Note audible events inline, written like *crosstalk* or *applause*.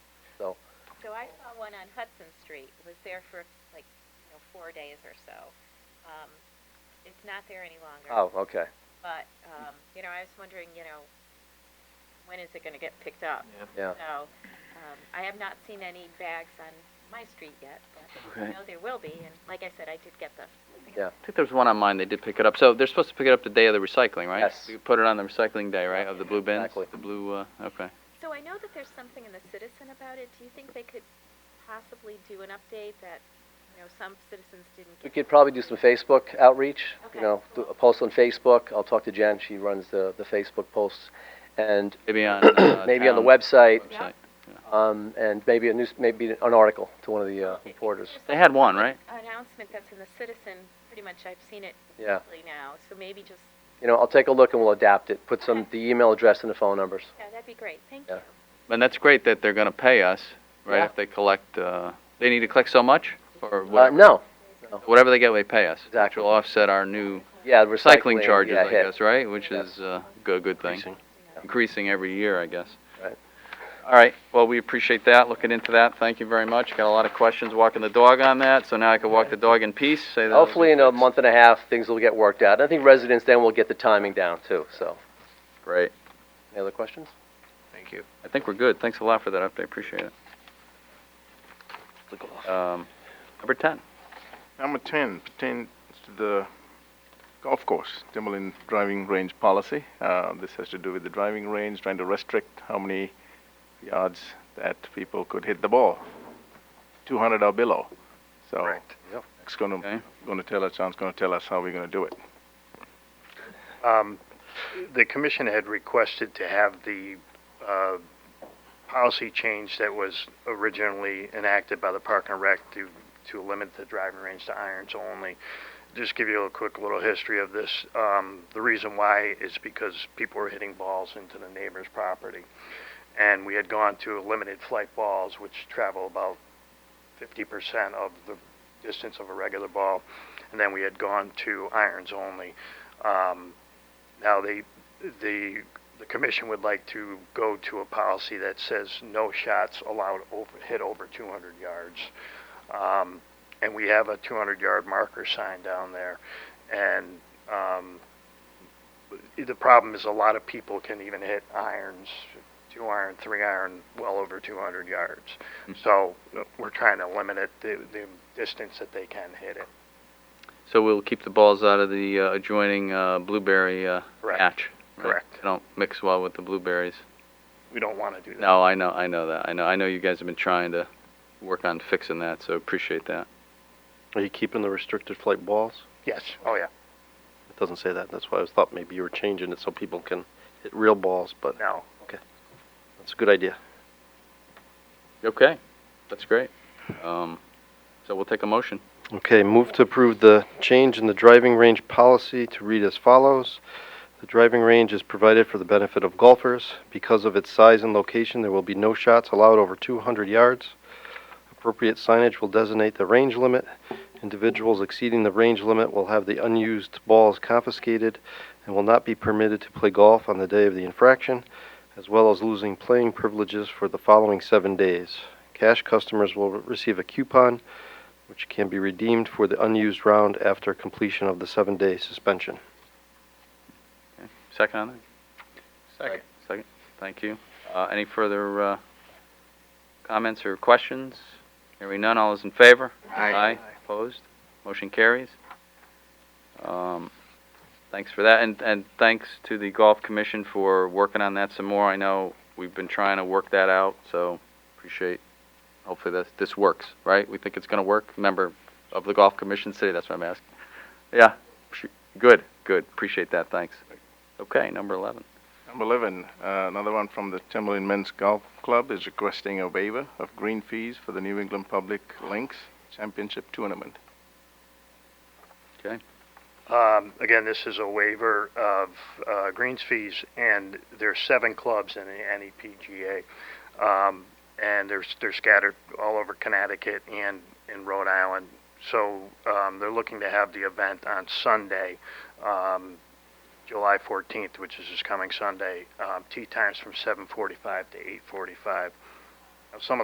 I saw one on Hudson Street, was there for like, you know, four days or so. Um, it's not there any longer. Oh, okay. But, um, you know, I was wondering, you know, when is it gonna get picked up? Yeah. So, um, I have not seen any bags on my street yet, but I Okay. know there will be, and like I said, I did get the. I think there's one on mine. They did pick it up. So they're supposed to pick it up the day of the recycling, right? Yes. We put it on the recycling day, right? Of the blue bins. Exactly. The blue. Uh, okay. So I know that there's something in the Citizen about it, do you think they could possibly do an update that, you know, some citizens didn't We get? could probably do some Facebook outreach, Okay, you know, do cool. a post on Facebook. I'll talk to Jen, she runs the, the Facebook posts. And *clears throat* *coughs* Maybe on. Uh, maybe on the town website, website. um, and maybe a news, maybe an article to one of the, uh, Okay. reporters. There's They had one, right? announcement that's in the Citizen, pretty much I've seen it Yeah. weekly now, so maybe just, You know, I'll take a look and we'll adapt it, put some, Okay. the email address and the phone numbers. yeah, that'd be great, thank Yeah. you. And that's great that they're going to pay us, right? Yeah. If they collect, uh, they need to collect so much or Uh, whatever. no, Whatever they get, they pay us. Which Exactly. will offset our new yeah, recycling, cycling charges, yeah, I hit. guess, right? Which Yeah. is uh, a good thing. Increasing. Increasing every year, I guess. Right. All right, well, we appreciate that, looking into that, thank you very much. Got a lot of questions walking the dog on that, so now I can walk the dog in peace, say that. Hopefully in a month and a half, things will get worked out. I think residents then will get the timing down too, so. Great. Any other questions? Thank you. I think we're good, thanks a lot for that update, appreciate it. Um, Number 10, Number 10 pertains to the golf course, Timberland driving range policy. Uh, this has to do with the driving range, trying to restrict how many yards that people could hit the ball, 200 or below. So Yep. it's going to Okay. going to tell us. John's going to tell us how we're going to do it. Um, The commission had requested to have the uh, policy change that was originally enacted by the Park and Rec to, to limit the driving range to irons only. Just give you a quick little history of this. Um, The reason why is because people were hitting balls into the neighbor's property. And we had gone to limited flight balls, which travel about 50% of the distance of a regular ball. And then we had gone to irons only. Um, now, they, the, the commission would like to go to a policy that says no shots allowed over, hit over 200 yards. Um, and we have a 200-yard marker sign down there. And, um, the problem is a lot of people can even hit irons, two iron, three iron, well over 200 yards. So we're trying to limit it, the, the distance that they can hit it. so we'll keep the balls out of the uh, adjoining uh, blueberry uh, Correct. patch. right? Correct. They don't mix well with the blueberries. We don't want to do that. No, I know, I know that, I know, I know you guys have been trying to work on fixing that, so appreciate that. Are you keeping the restricted flight balls? Yes, oh, yeah, It doesn't say that. That's why I was thought maybe you were changing it so people can hit real balls, but no. that's a good idea. Okay, that's great. Um, So we'll take a motion. Okay, move to approve the change in the driving range policy to read as follows. The driving range is provided for the benefit of golfers. Because of its size and location, there will be no shots allowed over 200 yards. Appropriate signage will designate the range limit. Individuals exceeding the range limit will have the unused balls confiscated and will not be permitted to play golf on the day of the infraction, as well as losing playing privileges for the following seven days. Cash customers will receive a coupon which can be redeemed for the unused round after completion of the seven-day suspension. Second on that? Second. Second, thank you. Uh, Any further uh, comments or questions? Hearing none, all is in favor? Aye. Opposed? Motion carries. Um, Thanks for that, and, and thanks to the Golf Commission for working on that some more. I know we've been trying to work that out, so appreciate, hopefully this, this works, right? We think it's gonna work? Member of the Golf Commission City, that's what I'm asking. Yeah, sh- good, good, appreciate that, thanks. Okay, number 11. Number 11, uh, another one from the Timberland Men's Golf Club is requesting a waiver of green fees for the New England Public Links Championship Tournament. Um, again, this is a waiver of, uh, greens fees, and there's seven clubs in the E NEPGA. Um, and they're, they're scattered all over Connecticut and in Rhode Island. So, um, they're looking to have the event on Sunday, um, July fourteenth, which is this coming Sunday, um, tee times from seven forty-five to eight forty-five. Some of